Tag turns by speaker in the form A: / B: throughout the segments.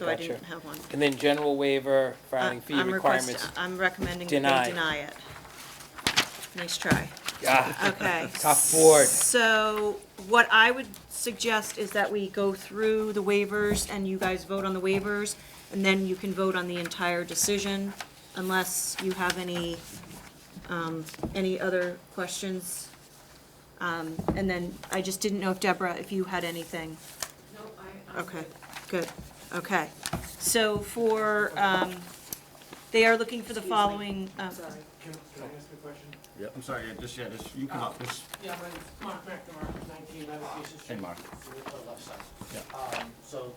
A: so I
B: Gotcha.
A: didn't have one.
B: And then general waiver, filing
A: Uh,
B: fee
A: I'm request-
B: requirements.
A: I'm recommending that
B: Deny.
A: they deny it. Nice try.
B: Ah,
A: Okay.
B: Tough board.
A: So what I would suggest is that we go through the waivers and you guys vote on the waivers, and then you can vote on the entire decision unless you have any, um, any other questions. Um, and then I just didn't know if Deborah, if you had anything. No, I. Okay, good, okay. So for, um, they are looking for the following, um,
C: Can can I ask a question?
D: I'm sorry, yeah, just, yeah, just, you come up, just,
C: Yeah, my name's Mark McNamara, 19 Navigation Street.
D: Hey, Mark.
C: So it's on the left side.
D: Yeah.
C: Um, So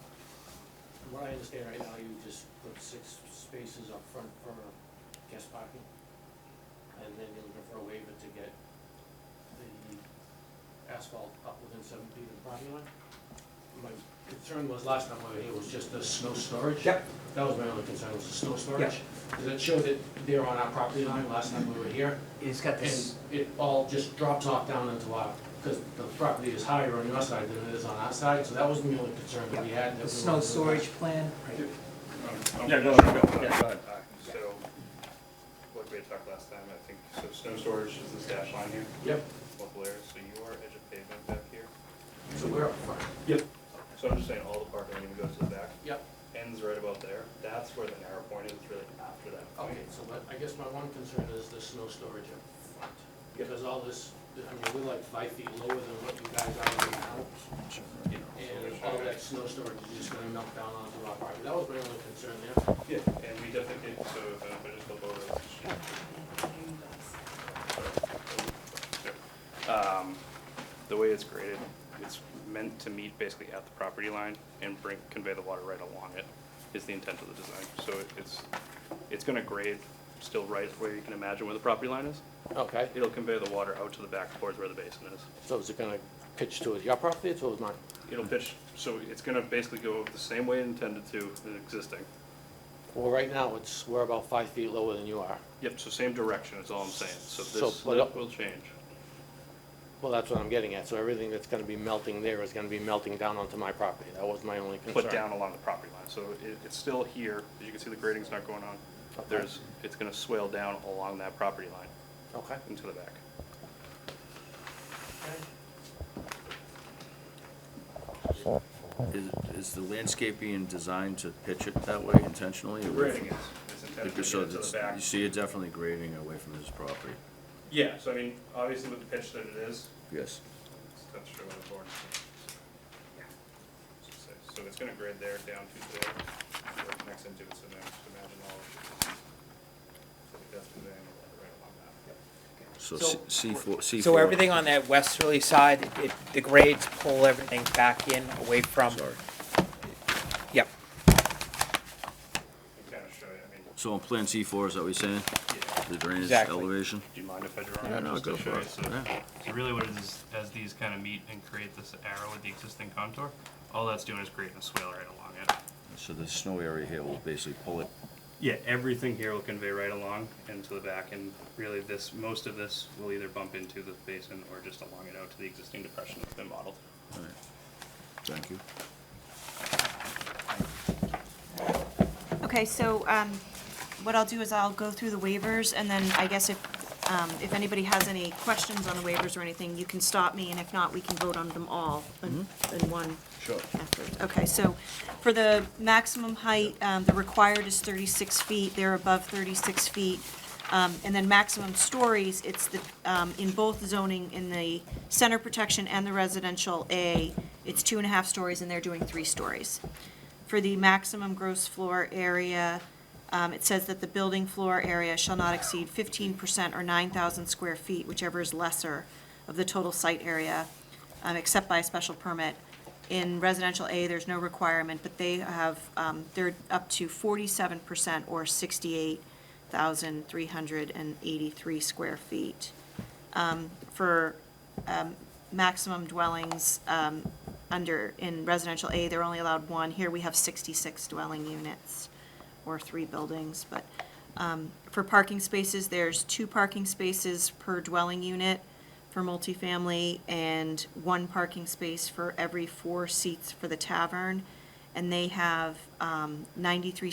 C: from what I understand right now, you just put six spaces up front for guest parking, and then you're looking for a waiver to get the asphalt up within seven feet of the property line? My concern was last time we were here was just the snow storage.
E: Yep.
C: That was my only concern, was the snow storage. Because it showed that they're on our property line last time we were here.
E: It's got
C: And
E: this,
C: it all just drops off down into our, because the property is higher on your side than it is on our side, so that was the only concern that we had. that
E: the
C: we
E: snow
C: wanted to-
E: storage plan.
D: yeah, go, ahead, go, yeah, go ahead.
F: uh, So, like we had talked last time, I think, so snow storage is this dash line here,
C: Yep,
F: local area, so you are edge of pavement back here.
C: so we're up front.
F: So I'm just saying all the parking even goes to the back,
C: Yep,
F: ends right about there, that's where the narrow point is, really after that
C: okay,
F: point.
C: so what, I guess my one concern is the snow storage up front. Because all this, I mean, we're like five feet lower than what you guys are right now. And all that snow storage is just gonna melt down onto our property. That was my only concern there.
F: Yeah, and we definitely, so if I just go over this. sheet. Um, The way it's graded, it's meant to meet basically at the property line and bring, convey the water right along it, is the intent of the design. So it- it's, it's gonna grade still right where you can imagine where the property line is.
C: Okay,
F: It'll convey the water out to the back towards where the basin is.
C: so is it gonna pitch towards your property or towards mine?
F: It'll pitch, so it's gonna basically go the same way intended to in existing.
C: Well, right now, it's, we're about five feet lower than you are.
F: Yep, so same direction is all I'm saying, so
C: So,
F: this
C: but it-
F: will change.
C: Well, that's what I'm getting at, so everything that's gonna be melting there is gonna be melting down onto my property, that was my only concern.
F: put down along the property line, so it, it's still here, as you can see, the grading's not going on.
C: Okay.
F: There's, it's gonna swale down along that property line
C: Okay,
F: into the back.
D: Is, is the landscaping designed to pitch it that way intentionally? away
F: Grading is, is
D: from-
F: intended
D: because
F: to get
D: so
F: it to the
D: it's-
F: back.
D: You see, it's definitely grading away from his property,
F: Yeah, so I mean, obviously with the pitch that it is,
D: yes.
F: that's true on the board. So it's gonna grade there down to there, where it connects into it, so now just imagine all of it. So that's conveying the water right along that.
D: So
B: So-
D: C- C four, C four.
B: So everything on that westerly side, it, the grades pull everything back in, away from,
D: Sorry.
B: yep.
F: You kind of show you, I mean,
D: So on plan C four, is that what you're saying?
F: yeah.
D: The drainage
B: Exactly.
D: elevation?
F: Do you mind if I draw?
D: Yeah,
F: on
D: no,
F: just to
D: go
F: show
D: for
F: you?
D: it,
F: So-
D: yeah.
F: So really what it is, as these kind of meet and create this arrow with the existing contour, all that's doing is creating a swale right along it.
D: So the snow area here will basically pull it,
F: Yeah, everything here will convey right along and to the back, and really this, most of this will either bump into the basin or just along it out to the existing depression that's been modeled.
D: all right, thank you.
A: Okay, so um, what I'll do is I'll go through the waivers, and then I guess if, um, if anybody has any questions on the waivers or anything, you can stop me, and if not, we can vote on them all in in one.
D: Sure.
A: effort. Okay, so for the maximum height, um, the required is 36 feet, they're above 36 feet. Um, And then maximum stories, it's the, um, in both zoning, in the center protection and the residential A, it's two and a half stories, and they're doing three stories. For the maximum gross floor area, um, it says that the building floor area shall not exceed 15% or 9,000 square feet, whichever is lesser of the total site area, um, except by a special permit. In residential A, there's no requirement, but they have, um, they're up to 47% or 68,383 square feet. Um, For um, maximum dwellings, um, under, in residential A, they're only allowed one. Here, we have 66 dwelling units or three buildings, but um, for parking spaces, there's two parking spaces per dwelling unit for multifamily and one parking space for every four seats for the tavern. and they have um, 93